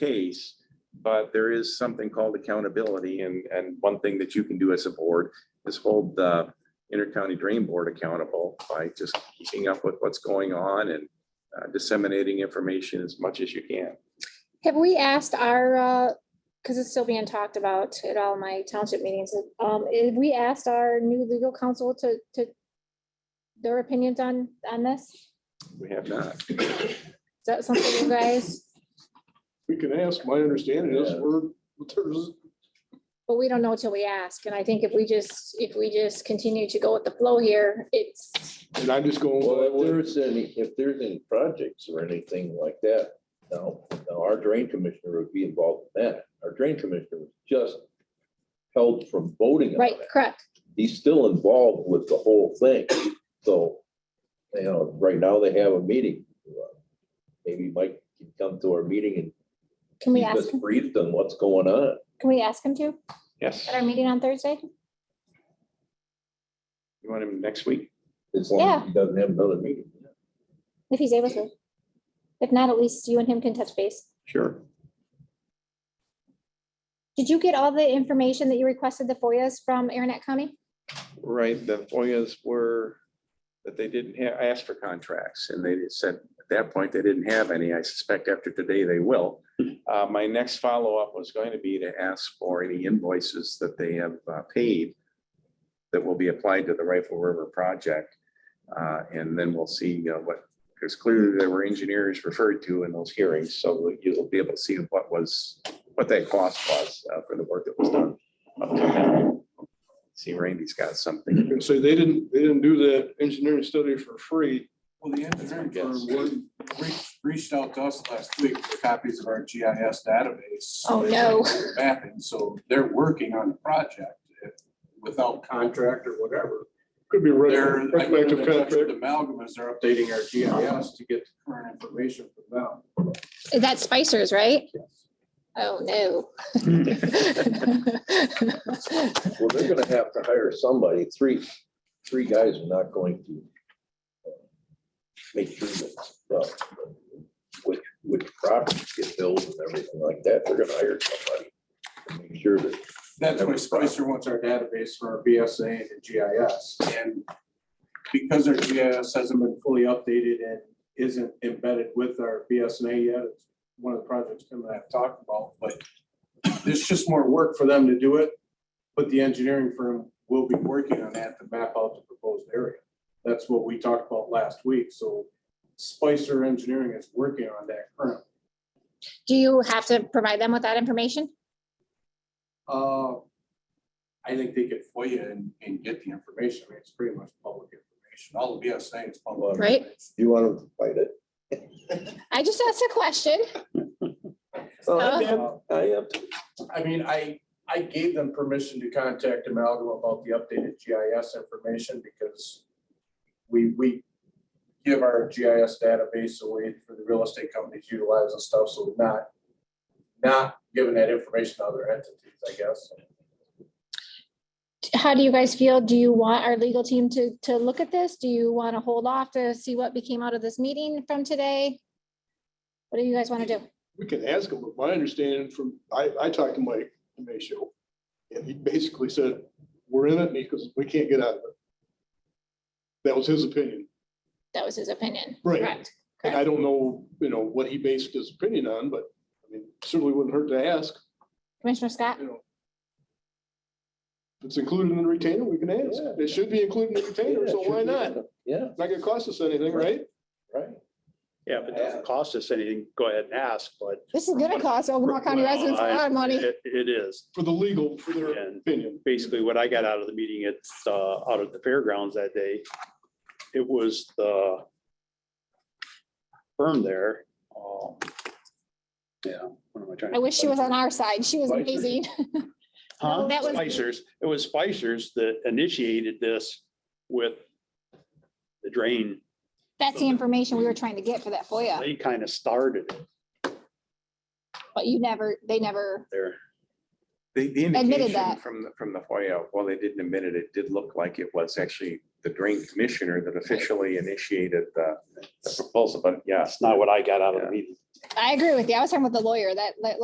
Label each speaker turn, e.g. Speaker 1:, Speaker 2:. Speaker 1: case, but there is something called accountability and, and one thing that you can do as a board is hold the intercounty drain board accountable by just keeping up with what's going on and uh, disseminating information as much as you can.
Speaker 2: Have we asked our, because it's still being talked about at all my township meetings, um, have we asked our new legal counsel to, to their opinions on, on this? Is
Speaker 1: We have not.
Speaker 2: that something you guys,
Speaker 3: We can ask, my understanding is we're, there's,
Speaker 2: but we don't know till we ask. And I think if we just, if we just continue to go with the flow here, it's,
Speaker 3: and I'm just going,
Speaker 4: Well, if
Speaker 3: well,
Speaker 4: there's any, if there's any projects or anything like that, now, now our drain commissioner would be involved in that. Our drain commissioner was just held from voting on
Speaker 2: right,
Speaker 4: it.
Speaker 2: correct.
Speaker 4: He's still involved with the whole thing, so, you know, right now they have a meeting. Maybe Mike can come to our meeting and
Speaker 2: Can we
Speaker 4: keep
Speaker 2: ask,
Speaker 4: us
Speaker 2: him?
Speaker 4: briefed on what's going on.
Speaker 2: can we ask him to
Speaker 1: Yes.
Speaker 2: at our meeting on Thursday?
Speaker 1: You want him next week?
Speaker 4: As long as he doesn't have another meeting.
Speaker 2: If he's able to. If not, at least you and him can touch base.
Speaker 1: Sure.
Speaker 2: Did you get all the information that you requested the FOIAs from Aranet County?
Speaker 1: Right, the FOIAs were, that they didn't have, I asked for contracts and they said, at that point, they didn't have any. I suspect after today, they will. Uh, my next follow-up was going to be to ask for any invoices that they have uh, paid that will be applied to the Rifle River project. Uh, and then we'll see you know, what, because clearly there were engineers referred to in those hearings, so you'll be able to see what was, what that cost was uh, for the work that was done. up till now. See, Randy's got something.
Speaker 3: so they didn't, they didn't do that engineering study for free.
Speaker 5: Well, the engineering
Speaker 1: That's my
Speaker 5: firm would- re- reached out to us last week for copies of our GIS database.
Speaker 2: Oh, no.
Speaker 5: Mapping, so they're working on the project if- without contract or whatever.
Speaker 3: Could be
Speaker 5: They're,
Speaker 3: retro-
Speaker 5: I get in
Speaker 3: retroactive
Speaker 5: touch with
Speaker 3: contract.
Speaker 5: Amalgam as they're updating our GIS to get current information from them.
Speaker 2: That's Spicer's, right? Oh, no.
Speaker 4: Well, they're gonna have to hire somebody, three, three guys are not going to uh, make sure that, uh, which, which properties get built and everything like that, they're gonna hire somebody to make sure that,
Speaker 5: That's why Spicer wants our database for our BSA and the GIS. And because our GIS hasn't been fully updated and isn't embedded with our BSNA yet, it's one of the projects Tim and I have talked about, but there's just more work for them to do it. But the engineering firm will be working on that to map out the proposed area. That's what we talked about last week, so Spicer Engineering is working on that currently.
Speaker 2: Do you have to provide them with that information?
Speaker 5: Uh, I think they could FOIA and, and get the information. I mean, it's pretty much public information. All the BSA is public.
Speaker 2: Right.
Speaker 5: information.
Speaker 4: you want them to fight it.
Speaker 2: I just asked a question.
Speaker 4: So I am,
Speaker 5: Uh,
Speaker 4: I am,
Speaker 5: I mean, I, I gave them permission to contact Amalgam about the updated GIS information because we, we give our GIS database away for the real estate companies to utilize and stuff, so we're not, not giving that information to other entities, I guess.
Speaker 2: How do you guys feel? Do you want our legal team to, to look at this? Do you want to hold off to see what became out of this meeting from today? What do you guys want to do?
Speaker 3: We can ask them, but my understanding from, I, I talked to Mike Demasio, and he basically said, we're in it because we can't get out of it. That was his opinion.
Speaker 2: That was his opinion.
Speaker 3: Right.
Speaker 2: Correct.
Speaker 3: And I don't know, you know, what he based his opinion on, but I mean, certainly wouldn't hurt to ask,
Speaker 2: Commissioner Scott?
Speaker 3: you know. If it's included in the retainer, we can ask.
Speaker 4: Yeah.
Speaker 3: It should be included in the retainer, so why not?
Speaker 4: Yeah,
Speaker 3: Not gonna cost us anything, right?
Speaker 4: right.
Speaker 6: Yeah, if it doesn't cost us anything, go ahead and ask, but.
Speaker 2: This is gonna cost Ogama County residents a lot of money.
Speaker 6: It it is.
Speaker 3: For the legal, for their
Speaker 6: And
Speaker 3: opinion.
Speaker 6: basically what I got out of the meeting, it's uh, out at the fairgrounds that day. It was the firm there. um, Yeah, what am I trying?
Speaker 2: I
Speaker 6: to-
Speaker 2: wish she was on our side. She was
Speaker 6: Spicer.
Speaker 2: amazing.
Speaker 6: Huh?
Speaker 2: No, that was-
Speaker 6: Spicers, it was Spicers that initiated this with the drain.
Speaker 2: That's the information we were trying to get for that FOIA,
Speaker 6: They kind of started it
Speaker 2: but you never, they never,
Speaker 6: there.
Speaker 1: The, the
Speaker 2: Admitted
Speaker 1: indication
Speaker 2: that.
Speaker 1: from, the- from the FOIA, while they didn't admit it, it did look like it was actually the drain commissioner that officially initiated the the proposal, but yes,
Speaker 6: That's not what I got out of the meeting.
Speaker 2: I agree with you. I was talking with the lawyer, that, that